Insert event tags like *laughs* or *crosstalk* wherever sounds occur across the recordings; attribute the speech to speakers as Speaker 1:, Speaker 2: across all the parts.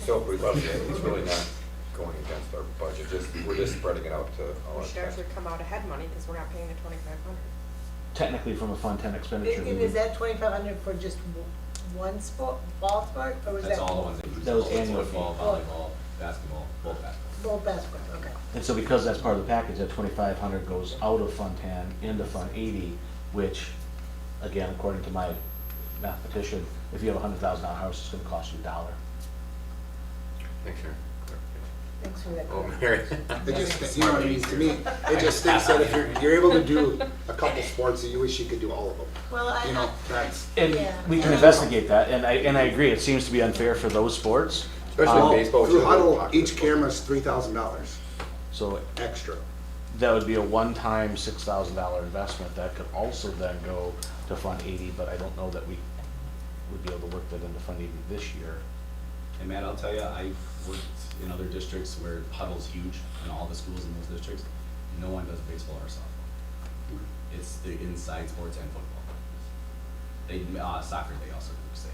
Speaker 1: still, we love it, it's really not going against our budget, just, we're just spreading it out to all our.
Speaker 2: We should actually come out ahead money because we're not paying the twenty-five hundred.
Speaker 3: technically from a Fund Ten expenditure. we
Speaker 4: And
Speaker 3: would-
Speaker 4: is that twenty-five hundred for just w- one sport, ball sport, or was that?
Speaker 5: That's all the ones that use.
Speaker 3: That was annual fee.
Speaker 5: Football, volleyball, basketball, both basketball.
Speaker 4: Both basketball, okay.
Speaker 3: And so because that's part of the package, that twenty-five hundred goes out of Fund Ten into Fund Eighty, which, again, according to my mathematician, if you have a hundred thousand dollar house, it's gonna cost you a dollar.
Speaker 6: Thanks, Aaron.
Speaker 4: Thanks for that.
Speaker 6: Oh, Mary.
Speaker 7: It just, you know what I mean, to me, it just thinks that if you're, you're able to do a couple sports, you wish you could do all of them.
Speaker 4: Well, I-
Speaker 7: You know, that's,
Speaker 3: And
Speaker 4: Yeah.
Speaker 3: we can investigate that, and I, and I agree, it seems to be unfair for those sports.
Speaker 1: Especially
Speaker 3: Um,
Speaker 1: baseball. which is
Speaker 7: through
Speaker 1: a little
Speaker 7: huddle,
Speaker 1: popular
Speaker 7: each
Speaker 1: sport.
Speaker 7: camera's three thousand dollars
Speaker 3: So
Speaker 7: extra.
Speaker 3: that would be a one-time six thousand dollar investment that could also then go to Fund Eighty, but I don't know that we would be able to work that into Fund Eighty this year.
Speaker 5: And Matt, I'll tell you, I've worked in other districts where huddle's huge in all the schools in those districts. No one does baseball or softball. It's the inside sports and football. They, uh, soccer, they also do, 'cause they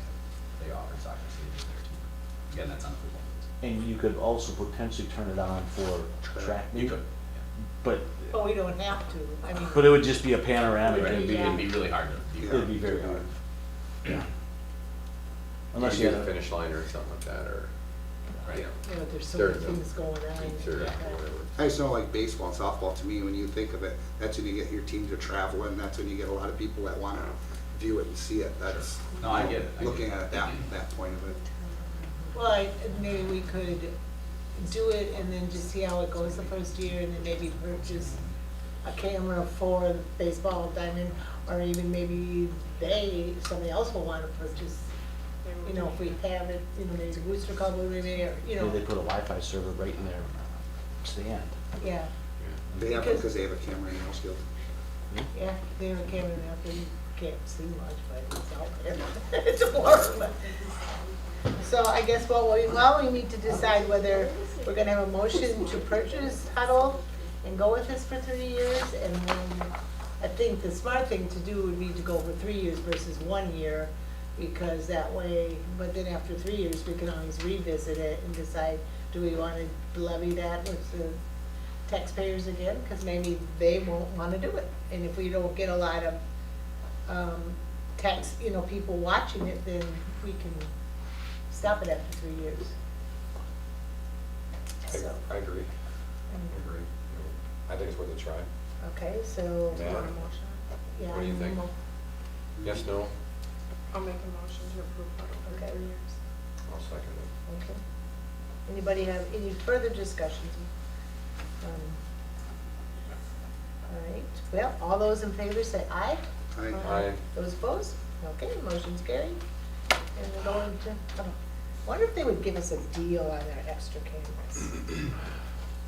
Speaker 5: have, they offer soccer stadiums there too. Again, that's on the football.
Speaker 3: And you could also potentially turn it on for track
Speaker 5: You
Speaker 3: meet,
Speaker 5: could, yeah.
Speaker 3: but,
Speaker 4: But we don't have to, I mean.
Speaker 3: but it would just be a panoramic, it'd be,
Speaker 5: It'd be really hard to. do.
Speaker 3: it'd be very hard. Yeah. Unless
Speaker 6: You
Speaker 3: you
Speaker 6: use a
Speaker 3: had a,
Speaker 6: finish line or something like that, or,
Speaker 5: Right.
Speaker 6: you know,
Speaker 4: You know, there's so
Speaker 6: There
Speaker 4: many
Speaker 6: you go.
Speaker 4: things going on.
Speaker 6: meets or
Speaker 4: Yeah.
Speaker 6: whatever.
Speaker 7: I just know like baseball and softball, to me, when you think of it, that's when you get your teams are traveling, that's when you get a lot of people that wanna view it and see it, that's.
Speaker 5: No, I get it, I get
Speaker 7: Looking
Speaker 5: it.
Speaker 7: at it that, that point of it.
Speaker 4: Well, I, maybe we could do it and then just see how it goes the first year and then maybe purchase a camera for the baseball diamond, or even maybe they, somebody else will wanna purchase, you know, if we have it, you know, maybe the Rooster Club will be there, you
Speaker 3: maybe
Speaker 4: know,
Speaker 3: they put a Wi-Fi server right in their stand.
Speaker 4: yeah,
Speaker 7: They have,
Speaker 4: Because-
Speaker 7: because they have a camera in Hillsfield.
Speaker 4: yeah, they have a camera out there, you can't see much, but it's out there, *laughs* it's warm. So I guess what we, well, we need to decide whether we're gonna have a motion to purchase Huddle and go with this for three years, and then I think the smart thing to do would be to go for three years versus one year, because that way, but then after three years, we can always revisit it and decide, do we wanna levy that with the taxpayers again? Cause maybe they won't wanna do it, and if we don't get a lot of, um, tax, you know, people watching it, then we can stop it after three years. So,
Speaker 1: I, I agree, I
Speaker 4: um,
Speaker 1: agree. I think it's worth a try.
Speaker 4: okay, so,
Speaker 1: Yeah.
Speaker 2: Want a motion?
Speaker 4: yeah.
Speaker 6: What do you
Speaker 4: I'm
Speaker 6: think?
Speaker 4: mo-
Speaker 1: Yes, no,
Speaker 2: I'll make a motion to approve Huddle for
Speaker 4: Okay.
Speaker 2: three years.
Speaker 1: I'll second it.
Speaker 4: Okay. Anybody have any further discussions? Um, All right, well, all those in favor say aye.
Speaker 7: I,
Speaker 1: Aye.
Speaker 4: Those opposed? Okay, motion's carried. And we're going to, oh, wonder if they would give us a deal on our extra cameras?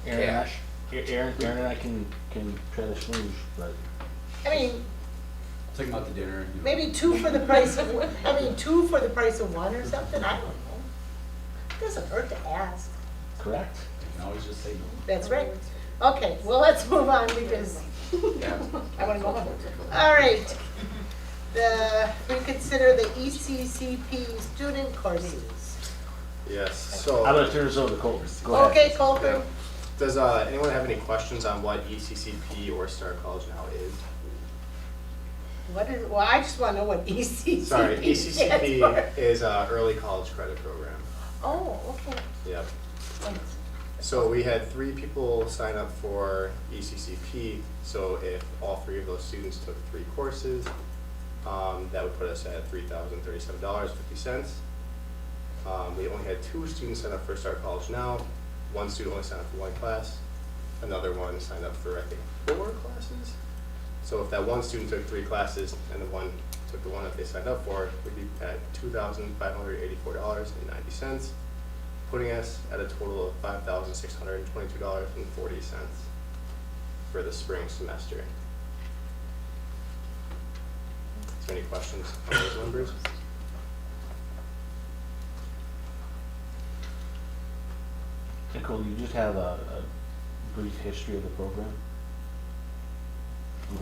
Speaker 3: Aaron, I-
Speaker 6: Cash.
Speaker 3: Aaron, Aaron and I can, can try to schmooze, but
Speaker 4: I mean,
Speaker 5: Take them out to dinner. you know.
Speaker 4: Maybe two for the price of, one- I mean, two for the price of one or something, I don't know. Doesn't hurt to ask.
Speaker 3: correct?
Speaker 5: You can always just say no.
Speaker 4: That's right. Okay, well, let's move on because I wanna go home. All right. The, reconsider the E ECCP student courses.
Speaker 8: Yes,
Speaker 3: I'm
Speaker 8: so
Speaker 3: gonna turn this over to Colton, go ahead.
Speaker 4: Okay, Colton?
Speaker 8: does uh, anyone have any questions on what E ECCP or Star College now is?
Speaker 4: What is, well, I just wanna know what E ECCP
Speaker 8: Sorry,
Speaker 3: E
Speaker 8: E
Speaker 4: stands for.
Speaker 8: ECCP is uh, Early College Credit Program.
Speaker 4: Oh, okay.
Speaker 8: Yep.
Speaker 4: Thanks.
Speaker 8: So we had three people sign up for E ECCP, so if all three of those students took three courses, um, that would put us at three thousand thirty-seven dollars fifty cents. Um, we only had two students sign up for Start College Now, one student only signed up for one class, another one signed up for, I think, four classes? So if that one student took three classes and the one took the one that they signed up for, we'd be at two thousand five hundred eighty-four dollars and ninety cents putting us at a total of five thousand six hundred and twenty-two dollars and forty cents for the spring semester. Is there any questions on those numbers?
Speaker 3: Okay, Colton, you just have a, a brief history of the program?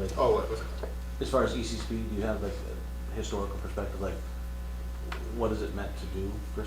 Speaker 3: Like,
Speaker 8: Oh, what was,
Speaker 3: As far as E ECCP, do you have like a historical perspective, like what has it meant to do for